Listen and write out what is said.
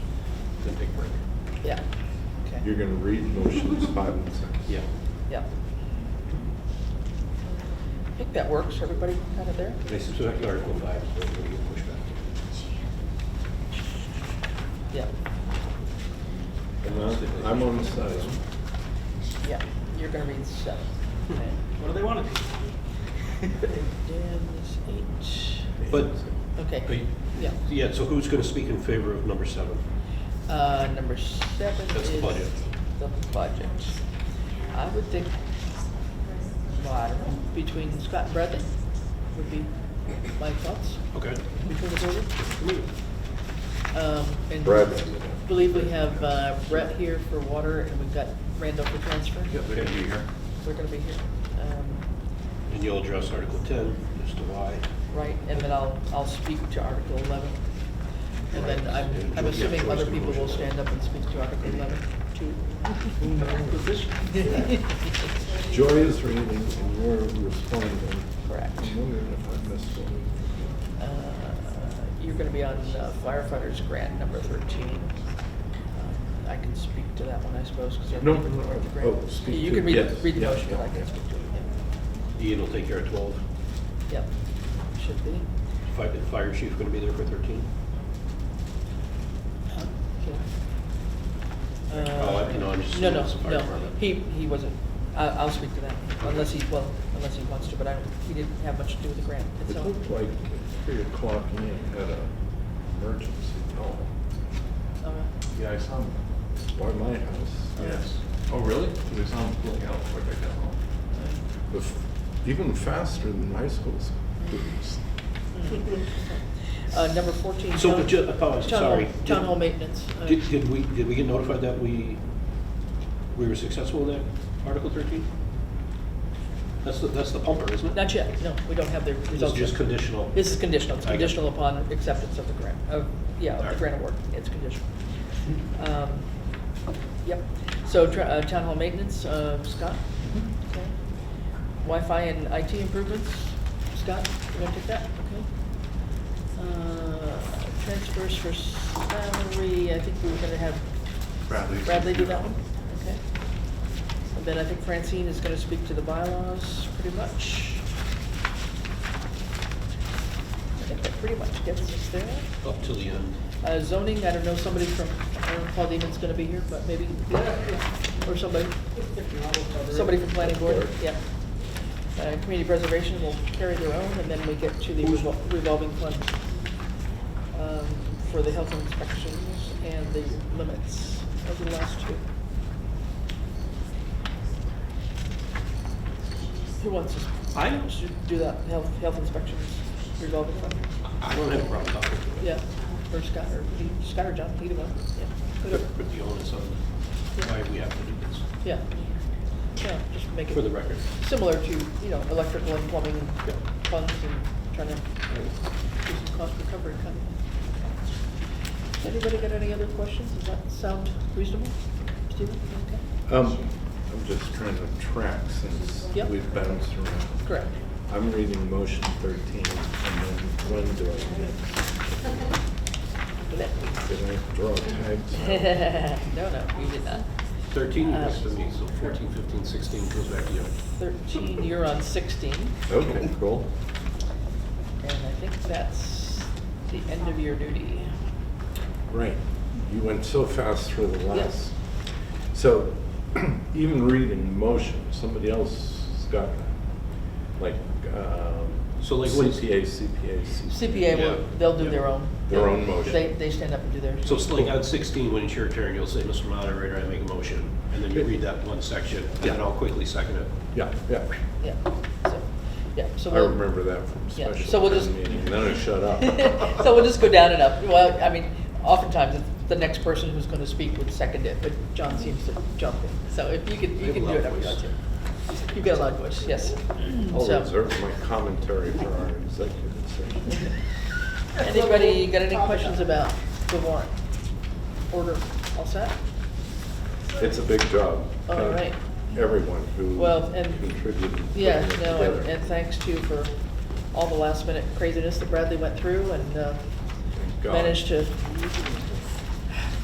yeah, Okay. You're gonna read motions five and six. Yeah. yeah. I think that works, everybody kind of there? They subtract Article five, so we get pushback. Yeah, And I'm- I'm on the side. yeah, you're gonna read seven. Okay. What do they want to do? Dan is But, eight, but okay, you- yeah. yeah, so who's going to speak in favor of number seven? Uh, number seven That's is the budget. the budget. I would think, well, I don't know, between Scott and Bradley would be my thoughts Okay. between the two of them. Um, and Bradley. Believe we have uh, Brett here for water and we've got Randall for transfer. Yeah, they're going to be here. We're gonna be here, um, And you'll address Article ten as to why. right, and then I'll, I'll speak to Article eleven. And then I'm, I'm assuming other people will stand up and speak to Article eleven too. Joy is reading and you're responding. Correct. I'm wondering if I missed one. Uh, You're gonna be on uh, firefighters grant number thirteen. Um, I can speak to that one, I suppose, because I No, don't no, no. the grant. Oh, speak You to can it. read, Yes, read the yeah, motion, but I yeah, can yeah. speak to it, Ian will take care of twelve. yeah. Yep, should be. Fi- the Fire chief going to be there for thirteen? Huh? Yeah. Oh, Uh, I- no, I'm just- No, no, it's fire no, department. he, he wasn't, I, I'll speak to that, unless he, well, unless he wants to, but I don't, he didn't have much to do with the grant It itself. looked like at three o'clock Ian had a emergency call Uh, Yeah, I saw him. by my house. Yes. Oh, really? Because I saw him pulling out before I got home. Bef- Even faster than high school students. Uh, number fourteen. So, town- but ju- apologies, town hall- sorry. Town Did- hall maintenance. uh, Did, did we, did we get notified that we, we were successful in that Article thirteen? That's the, that's the pumper, isn't it? Not yet, no, we don't have the It's results just yet. conditional. This is conditional, it's I got it. conditional upon acceptance of the grant, of, yeah, of the Alright. grant award, it's conditional. Um, Yep, so tra- uh, town hall maintenance, uh, Scott? Okay. Wi-Fi and IT improvements, Scott, you want to take that? Okay. Uh, Transfers for salary, I think we were gonna have Bradley. Bradley do that one, okay? And then I think Francine is gonna speak to the bylaws, pretty much. I think that pretty much gets us there. Up to the end. Uh, zoning, I don't know, somebody from, I don't know if Paul Demon's gonna be here, but maybe, or somebody, somebody from planning board, yeah. Uh, community preservation will carry their own, and then we get to the revol- revolving fund um, for the health inspections and the limits of the last two. Who wants to I to do that, health, health inspections revolving fund? I don't have a problem talking to it. Yeah, or Scott, or he- Scott or John, either one, yeah. whatever. Put the onus on why we have to do this, Yeah, yeah, just make for the it record. similar to, you know, electrical and plumbing and funds and trying to do some cost recovery kind of. Has Anybody got any other questions? Does that sound reasonable? Stephen, okay? Um, I'm just trying to track since Yep. we've bounced around. Correct. I'm reading motion thirteen, and then when do I get, did I draw tags? No, no, you did not. Thirteen, you Uh, missed me, so fourteen, fifteen, sixteen goes back to you. Thirteen, you're on sixteen. Okay, cool. And I think that's the end of your duty. Right, you went so fast through the Yes. last. So even reading motion, somebody else has got that, like, um, So like when- CPA, CPA, CPA. CPA, will- Yeah. they'll do their own. Their own motion. They, they stand up and do theirs. So it's like on sixteen, when it's your turn, you'll say, Mr. Moderator, I make a motion, and then you read that one section, and then Yeah. I'll quickly second it. Yeah, yeah, Yeah, so, yeah, so I we'll. remember that from Yeah, special so we'll just- town meeting, and then I shut up. So we'll just go down and up. Well, I mean, oftentimes, it's the next person who's gonna speak would second it, but John seems to jump in. So if you could, We you have can a do loud it every voice. time. You've got a loud voice, yes. I'll So- reserve my commentary for our executive session. Anybody got any questions about the warrant? Order, all set? It's a big job. All Thank right. Everyone who Well, and- contributed. to putting Yeah, it no, and- together. and thanks too for all the last minute craziness that Bradley went through and uh, Thank God. managed to